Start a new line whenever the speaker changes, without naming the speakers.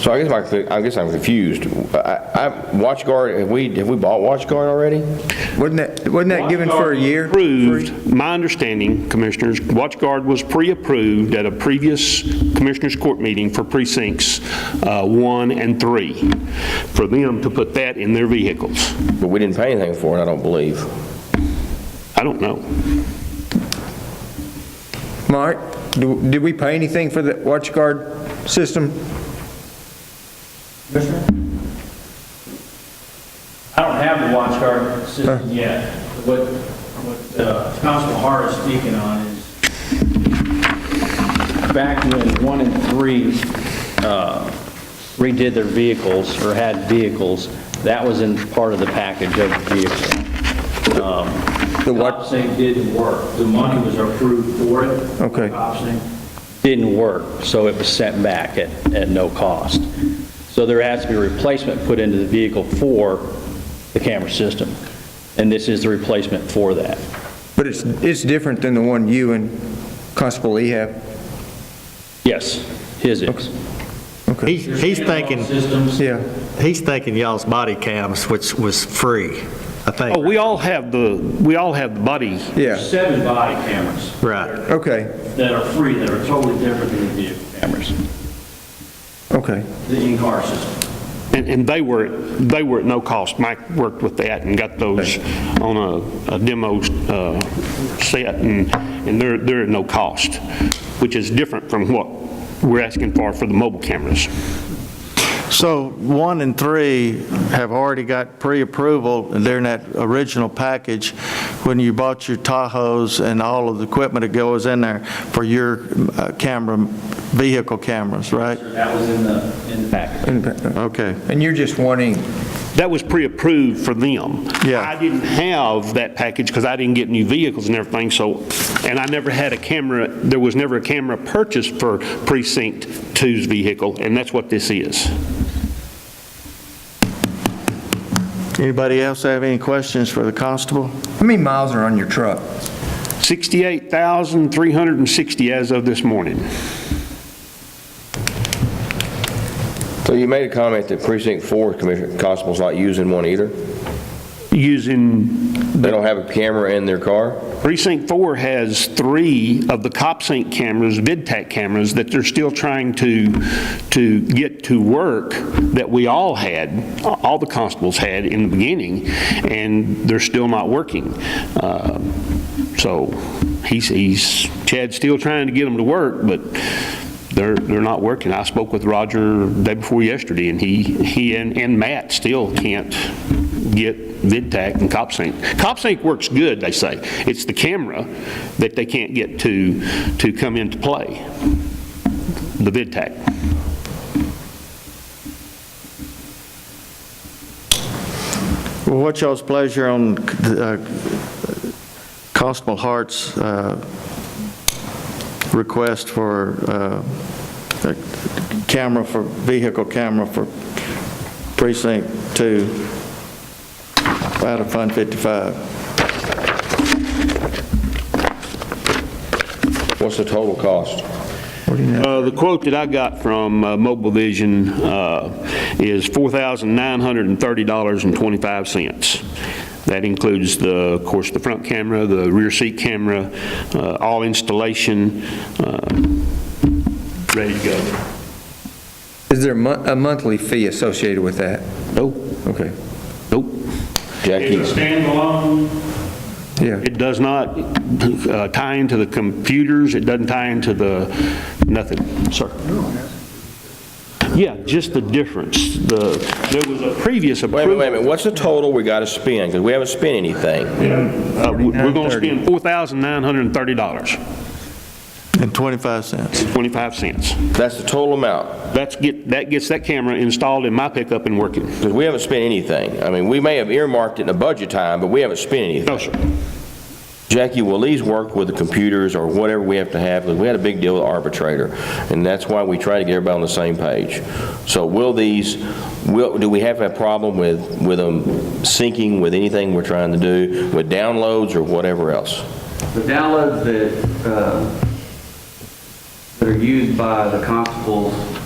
So I guess my, I guess I'm confused. I, I, WatchGuard, have we, have we bought WatchGuard already?
Wasn't that, wasn't that given for a year?
Approved, my understanding, Commissioners, WatchGuard was pre-approved at a previous Commissioners Court meeting for precincts uh, one and three, for them to put that in their vehicles.
But we didn't pay anything for it, I don't believe.
I don't know.
Mark, do- did we pay anything for the WatchGuard system?
I don't have the watch guard system yet. What, what uh, Councilman Hart is speaking on is back when one and three uh, redid their vehicles or had vehicles, that was in part of the package of the vehicle. Um,
The what?
Copsing didn't work. The money was approved for it.
Okay.
Copsing didn't work, so it was sent back at, at no cost. So there has to be a replacement put into the vehicle for the camera system, and this is the replacement for that.
But it's, it's different than the one you and Constable Lee have.
Yes, his is.
He's, he's thinking,
Systems.
Yeah.
he's thinking y'all's body cams, which was free, I
Oh,
think.
we all have the, we all have the buddy.
Yeah,
Seven body cameras
Right.
okay,
that are free, that are totally different than the vehicle cameras,
okay.
the in-car system.
And, and they were, they were at no cost. Mike worked with that and got those on a, a demo, uh, set, and, and they're, they're at no cost, which is different from what we're asking for for the mobile cameras.
So one and three have already got pre-approval during that original package when you bought your Tahoes and all of the equipment that goes in there for your uh, camera, vehicle cameras, right?
That was in the, in the package.
Okay.
And you're just wanting,
That was pre-approved for them.
Yeah.
I didn't have that package because I didn't get new vehicles and everything, so, and I never had a camera, there was never a camera purchased for precinct two's vehicle, and that's what this is.
Anybody else have any questions for the constable?
how many miles are on your truck?
68,360 as of this morning.
So you made a comment that precinct four commissioner, constable's not using one either?
Using,
They don't have a camera in their car?
precinct four has three of the CopSync cameras, VidTAC cameras, that they're still trying to, to get to work that we all had, all the constables had in the beginning, and they're still not working. Uh, So he's, he's, Chad's still trying to get them to work, but they're, they're not working. I spoke with Roger day before yesterday, and he, he and and Matt still can't get VidTAC and CopSync. CopSync works good, they say. It's the camera that they can't get to, to come into play, the VidTAC.
Well, What's y'all's pleasure on uh, Constable Hart's uh, request for uh, a camera for, vehicle camera for precinct two out of Fund 55?
What's the total cost?
Uh, The quote that I got from uh, Mobile Vision uh, is $4,930.25. That includes the, of course, the front camera, the rear seat camera, uh, all installation, uh, ready to go.
Is there a mon- a monthly fee associated with that?
Nope,
Okay,
nope.
Jackie,
standalone?
yeah.
It does not uh, tie into the computers, it doesn't tie into the, nothing, sir. Yeah, just the difference. The, there was a previous
wait a
approval.
minute, wait a minute, what's the total we gotta spend? Because we haven't spent anything.
Uh, we- We're going to spend $4,930,
And 25 cents.
25 cents.
That's the total amount,
That's get, that gets that camera installed in my pickup and working.
because we haven't spent anything. I mean, we may have earmarked it in a budget time, but we haven't spent anything.
No, sir.
Jackie, will these work with the computers or whatever we have to have? 'Cause we had a big deal with arbitrator, and that's why we try to get everybody on the same page. So will these, will, do we have a problem with, with them syncing with anything we're trying to do, with downloads or whatever else?
The downloads that, uh, that are used by the constables